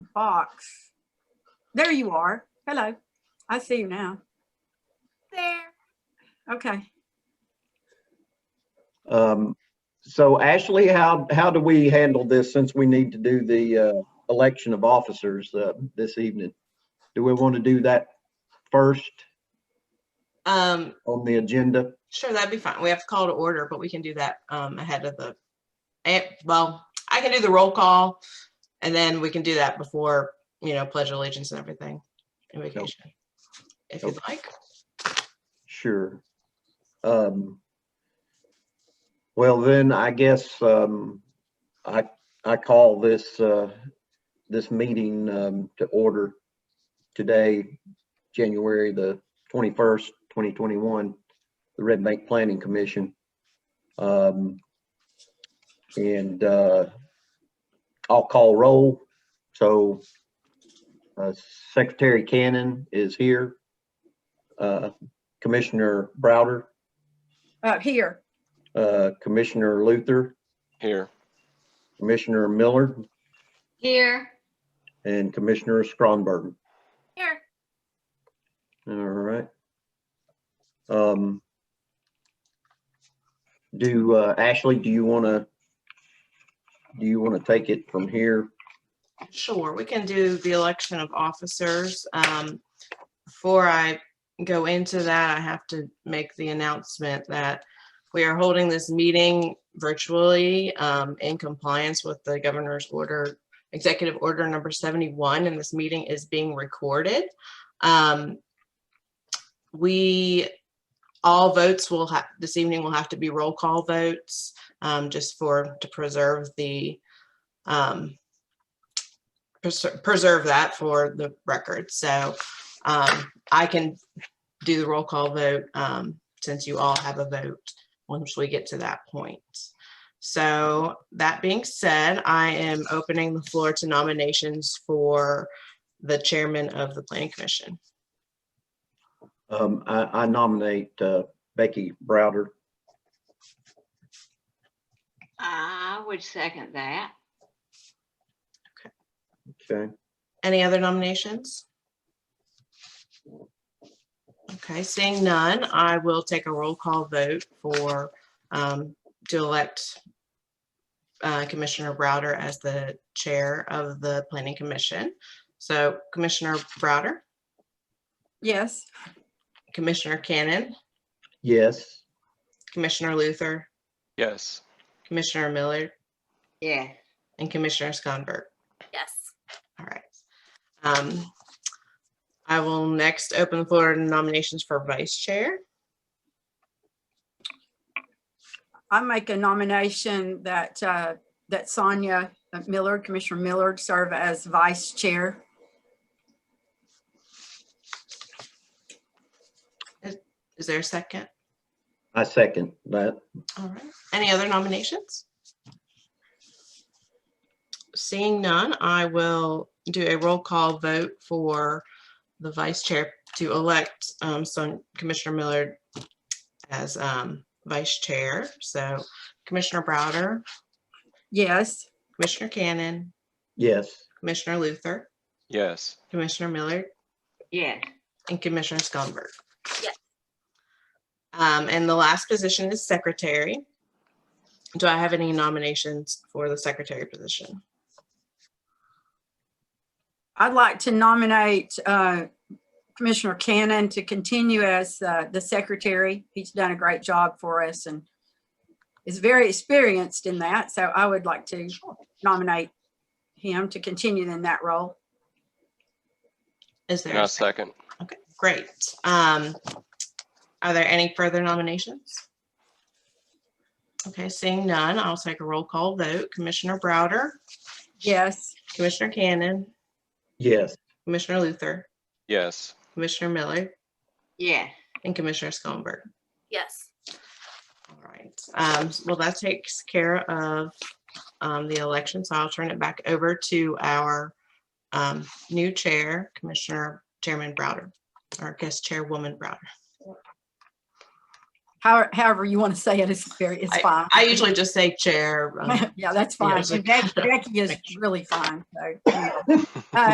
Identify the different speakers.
Speaker 1: box. There you are. Hello. I see you now.
Speaker 2: There.
Speaker 1: Okay.
Speaker 3: Um, so Ashley, how, how do we handle this since we need to do the, uh, election of officers, uh, this evening? Do we want to do that first
Speaker 4: Um,
Speaker 3: on the agenda?
Speaker 4: sure, that'd be fine. We have to call to order, but we can do that, um, ahead of the, eh, well, I can do the roll call and then we can do that before, you know, pledge allegiance and everything and vacation. If you'd like.
Speaker 3: Sure. Um, well, then I guess, um, I, I call this, uh, this meeting, um, to order today, January the twenty-first, twenty twenty-one, the Red Bank Planning Commission. Um, and, uh, I'll call roll. So, uh, Secretary Cannon is here. Uh, Commissioner Browder,
Speaker 1: Uh, here.
Speaker 3: uh, Commissioner Luther,
Speaker 5: Here,
Speaker 3: Commissioner Miller,
Speaker 2: Here.
Speaker 3: and Commissioner Skronberg.
Speaker 2: Here.
Speaker 3: All right. Um, do, uh, Ashley, do you want to, do you want to take it from here?
Speaker 4: Sure, we can do the election of officers. Um, Before I go into that, I have to make the announcement that we are holding this meeting virtually um, in compliance with the governor's order, executive order number 71, and this meeting is being recorded. Um, We, all votes will have, this evening will have to be roll call votes, um, just for, to preserve the um, preser- preserve that for the record. So um, I can do the roll call vote um, since you all have a vote once we get to that point. So that being said, I am opening the floor to nominations for the chairman of the planning commission.
Speaker 3: Um, I, I nominate, uh, Becky Browder.
Speaker 2: I would second that.
Speaker 3: Okay.
Speaker 4: Any other nominations? Okay, seeing none, I will take a roll call vote for, um, to elect uh, Commissioner Browder as the Chair of the Planning Commission. So Commissioner Browder,
Speaker 1: Yes.
Speaker 4: Commissioner Cannon,
Speaker 3: Yes.
Speaker 4: Commissioner Luther,
Speaker 5: yes,
Speaker 4: Commissioner Miller,
Speaker 2: Yeah.
Speaker 4: and Commissioner Skonberg.
Speaker 2: Yes.
Speaker 4: All right. Um, I will next open the floor to nominations for Vice Chair.
Speaker 1: I make a nomination that, uh, that Sonia Millard, Commissioner Millard, serve as vice chair.
Speaker 4: Is there a second?
Speaker 3: I second that.
Speaker 4: All right. Any other nominations? Seeing none, I will do a roll call vote for the vice chair to elect um, Son- Commissioner Millard as um, vice chair. So Commissioner Browder,
Speaker 1: Yes.
Speaker 4: Commissioner Cannon,
Speaker 3: Yes.
Speaker 4: Commissioner Luther,
Speaker 5: yes,
Speaker 4: Commissioner Millard,
Speaker 2: Yes.
Speaker 4: and Commissioner Skonberg.
Speaker 2: Yes.
Speaker 4: Um, and the last position is secretary. Do I have any nominations for the secretary position?
Speaker 1: I'd like to nominate, uh, Commissioner Cannon to continue as, uh, the secretary. He's done a great job for us and is very experienced in that. So I would like to nominate him to continue in that role.
Speaker 4: Is
Speaker 5: and
Speaker 4: there?
Speaker 5: I
Speaker 4: a sec-
Speaker 5: second,
Speaker 4: Okay, great. Um, are there any further nominations? Okay, seeing none, I'll take a roll call vote. Commissioner Browder,
Speaker 1: Yes.
Speaker 4: Commissioner Cannon,
Speaker 3: Yes.
Speaker 4: Commissioner Luther,
Speaker 5: yes,
Speaker 4: Commissioner Miller,
Speaker 2: Yes.
Speaker 4: and Commissioner Skonberg.
Speaker 2: Yes.
Speaker 4: All right, um, well, that takes care of, um, the election, so I'll turn it back over to our, um, new chair, Commissioner Chairman Browder, or guest Chairwoman Browder.
Speaker 1: How- However you want to say it is very, it's fine.
Speaker 4: I usually just say chair. um,
Speaker 1: Yeah, that's
Speaker 4: Yeah,
Speaker 1: fine.
Speaker 4: it's
Speaker 1: And
Speaker 4: like-
Speaker 1: Becky Becky is really fine. So, you know.